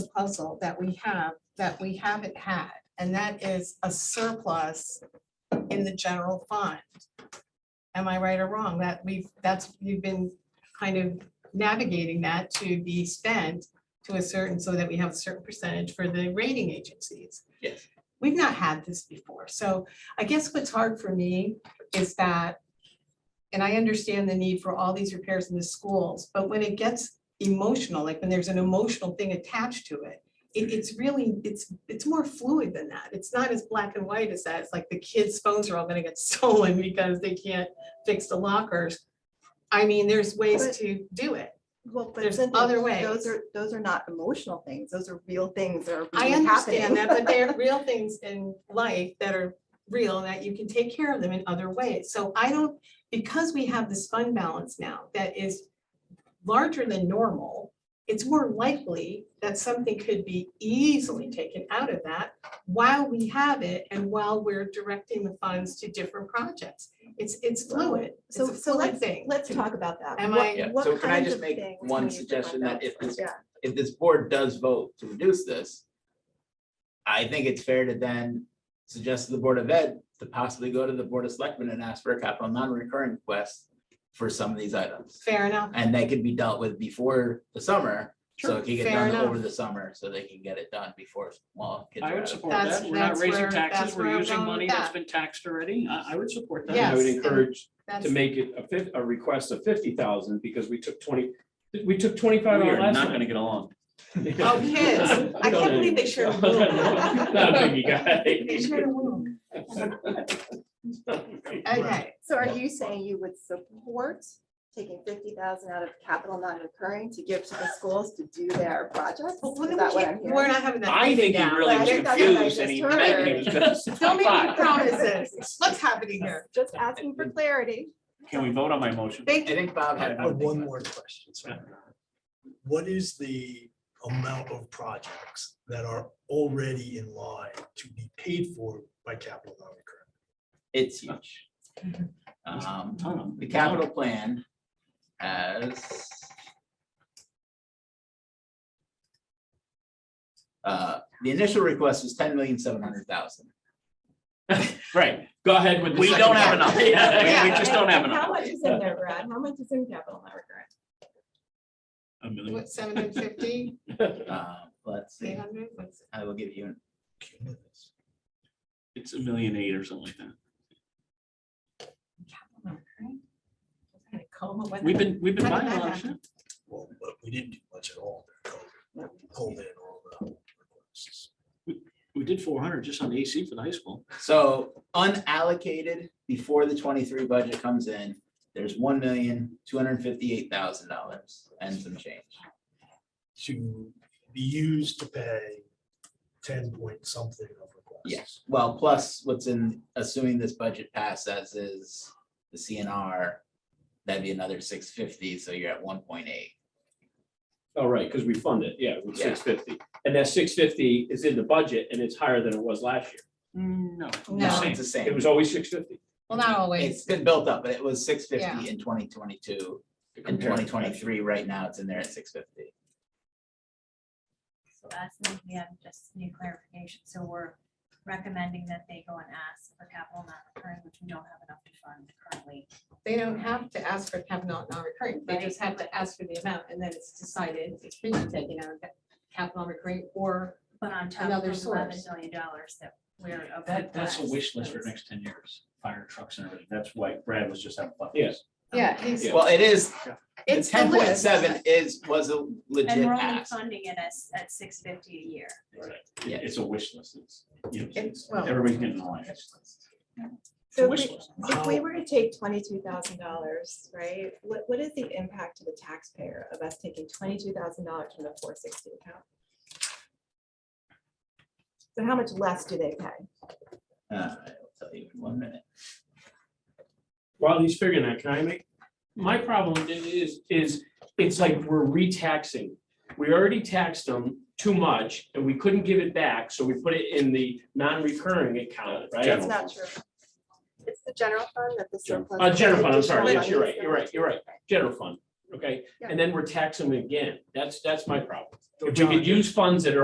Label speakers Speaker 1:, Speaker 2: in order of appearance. Speaker 1: puzzle that we have, that we haven't had, and that is a surplus in the general fund. Am I right or wrong? That we've, that's, you've been kind of navigating that to be spent to a certain, so that we have a certain percentage for the rating agencies.
Speaker 2: Yes.
Speaker 1: We've not had this before, so I guess what's hard for me is that, and I understand the need for all these repairs in the schools, but when it gets emotional, like when there's an emotional thing attached to it. It, it's really, it's, it's more fluid than that. It's not as black and white as that. It's like the kids' phones are all gonna get stolen because they can't fix the lockers. I mean, there's ways
Speaker 3: But-
Speaker 1: to do it.
Speaker 3: Well, but
Speaker 1: There's
Speaker 3: Cynthia,
Speaker 1: other ways.
Speaker 3: those are, those are not emotional things. Those are real things that are
Speaker 1: I
Speaker 3: really
Speaker 1: understand
Speaker 3: happening.
Speaker 1: that, but they're real things in life that are real and that you can take care of them in other ways. So I don't, because we have this fund balance now that is larger than normal, it's more likely that something could be easily taken out of that while we have it and while we're directing the funds to different projects. It's, it's fluid. It's a
Speaker 3: So, so
Speaker 1: fluid
Speaker 3: let's,
Speaker 1: thing.
Speaker 3: let's talk about that.
Speaker 1: Am
Speaker 3: What-
Speaker 1: I-
Speaker 2: Yeah,
Speaker 3: what
Speaker 2: so can I
Speaker 3: kinds
Speaker 2: just
Speaker 3: of
Speaker 2: make
Speaker 3: things
Speaker 2: one
Speaker 3: can you do about
Speaker 2: suggestion that if this,
Speaker 3: Yeah.
Speaker 2: if this board does vote to reduce this, I think it's fair to then suggest to the Board of Ed to possibly go to the Board of Selectmen and ask for a capital non-recurring request for some of these items.
Speaker 1: Fair enough.
Speaker 2: And they could be dealt with before the summer, so it can get
Speaker 1: Fair
Speaker 2: done over
Speaker 1: enough.
Speaker 2: the summer, so they can get it done before, well, kids
Speaker 4: I
Speaker 2: are
Speaker 4: would
Speaker 2: out of.
Speaker 4: support
Speaker 1: That's-
Speaker 4: that. We're not
Speaker 1: that's
Speaker 4: raising
Speaker 1: where- that's
Speaker 4: taxes.
Speaker 1: where
Speaker 4: We're
Speaker 1: I'm
Speaker 4: using
Speaker 1: going with
Speaker 4: money that's
Speaker 1: that.
Speaker 4: been taxed already. I, I would support that.
Speaker 1: Yeah.
Speaker 5: I would
Speaker 1: Yes, and-
Speaker 5: encourage
Speaker 1: That's,
Speaker 5: to make it a fifth, a request of fifty thousand, because we took twenty, we took twenty-five
Speaker 4: We
Speaker 5: out
Speaker 4: are
Speaker 5: last
Speaker 4: not
Speaker 5: time.
Speaker 4: gonna get along.
Speaker 1: oh, kids, I can't believe they shared. a room.
Speaker 5: Not a biggie,
Speaker 1: They
Speaker 5: guy.
Speaker 1: shared a room. Okay,
Speaker 3: So are you saying you would support taking fifty thousand out of capital non-recurring to give to the schools to do their projects?
Speaker 1: Well, we
Speaker 3: Is that what I'm
Speaker 1: can't- we're
Speaker 3: hearing?
Speaker 1: not having that.
Speaker 4: I think he
Speaker 1: now.
Speaker 4: really
Speaker 3: I
Speaker 4: was
Speaker 3: think that's what I
Speaker 4: confused and
Speaker 3: just
Speaker 4: he
Speaker 3: heard.
Speaker 4: meant he was gonna. say
Speaker 1: Don't make me
Speaker 4: five.
Speaker 1: promises. What's happening here?
Speaker 3: Just asking for clarity.
Speaker 4: Can we vote on my motion?
Speaker 2: I
Speaker 1: Thank you.
Speaker 2: think Bob
Speaker 6: I
Speaker 2: had
Speaker 6: have
Speaker 2: one
Speaker 6: one
Speaker 2: thing.
Speaker 6: more question. sorry. What is the amount of projects that are already in line to be paid for by capital non-recurring?
Speaker 2: It's huge. Um,
Speaker 4: Ton of them.
Speaker 2: the capital plan has uh, the initial request was ten million seven hundred thousand.
Speaker 4: Right.
Speaker 5: Go ahead with the
Speaker 4: We
Speaker 5: second
Speaker 4: don't have
Speaker 5: one.
Speaker 4: enough. Yeah, we
Speaker 1: Yeah.
Speaker 4: just don't have
Speaker 3: How
Speaker 4: enough.
Speaker 3: much is in there, Brad? How much is in capital non-recurring?
Speaker 4: A million.
Speaker 1: What, seven hundred fifty,
Speaker 2: Uh, Let's
Speaker 1: eight
Speaker 2: see,
Speaker 1: hundred, what's,
Speaker 2: I will give you an
Speaker 4: It's a million eight or something like that.
Speaker 1: I call them, what?
Speaker 4: We've been, we've been
Speaker 1: How
Speaker 4: buying
Speaker 1: did
Speaker 4: a
Speaker 1: that
Speaker 4: lot of shit.
Speaker 6: Well, but we didn't do much at all. during COVID. Hold in all the requests.
Speaker 4: We did four hundred just on AC for the high school.
Speaker 2: So unallocated before the twenty-three budget comes in, there's one million, two hundred and fifty-eight thousand dollars and some change.
Speaker 6: To be used to pay ten point something of requests.
Speaker 2: Yes, well, plus what's in, assuming this budget passes as is the CNR, that'd be another six fifty, so you're at one point eight.
Speaker 5: Oh, right, because we fund it, yeah, with
Speaker 2: Yeah.
Speaker 5: six fifty. And that six fifty is in the budget and it's higher than it was last year.
Speaker 4: No.
Speaker 1: No.
Speaker 4: Same.
Speaker 2: It's the
Speaker 5: It
Speaker 2: same.
Speaker 5: was always six fifty.
Speaker 1: well, not
Speaker 2: It's
Speaker 1: always,
Speaker 2: been built up, but it was six
Speaker 1: Yeah.
Speaker 2: fifty in twenty twenty-two and twenty twenty-three. Right now, it's in there at six fifty.
Speaker 7: So that's, we have just new clarification, so we're recommending that they go and ask for capital not recurring, which we don't have enough to fund currently.
Speaker 1: they don't have to ask for capital non-recurring, they just have to ask for the amount, and then it's decided, it's being taken out of that capital recurring, or
Speaker 7: But on top of
Speaker 1: Another
Speaker 7: the eleven
Speaker 1: source.
Speaker 7: million dollars that we're. of
Speaker 4: That, that's a
Speaker 7: requests,
Speaker 4: wish list for the
Speaker 7: that's-
Speaker 4: next ten years, fire trucks and everything. That's why Brad was just having fun.
Speaker 5: Yes.
Speaker 1: um, Yeah, he's-
Speaker 2: Well, it is,
Speaker 1: it's the
Speaker 2: ten point
Speaker 1: list.
Speaker 2: seven is, was a
Speaker 7: And
Speaker 2: legit
Speaker 7: we're only
Speaker 2: ask.
Speaker 7: funding it at, at six fifty a year.
Speaker 2: Yeah.
Speaker 4: It's a wish list. It's, you know,
Speaker 1: It's- well-
Speaker 4: everybody's getting a line. It's
Speaker 3: So
Speaker 4: a
Speaker 3: if
Speaker 4: wish
Speaker 3: we-
Speaker 4: list.
Speaker 3: If we were to take twenty-two thousand dollars, right, what, what is the impact to the taxpayer of us taking twenty-two thousand dollars from the four sixty account? So how much less do they pay?
Speaker 2: Uh, I'll tell you in one minute.
Speaker 5: While he's figuring that, can I make, my problem i- is, is, it's like we're re-taxing. We already taxed them too much and we couldn't give it back, so we put it in the non-recurring account, right?
Speaker 3: That's not true. It's the general fund that the
Speaker 4: General-
Speaker 3: surplus.
Speaker 5: Uh, general fund, I'm sorry, yes, you're right, you're right, you're right, general fund. okay? And then we're taxing them again. That's, that's my problem.
Speaker 6: So
Speaker 5: If we
Speaker 6: John,
Speaker 5: could use funds that are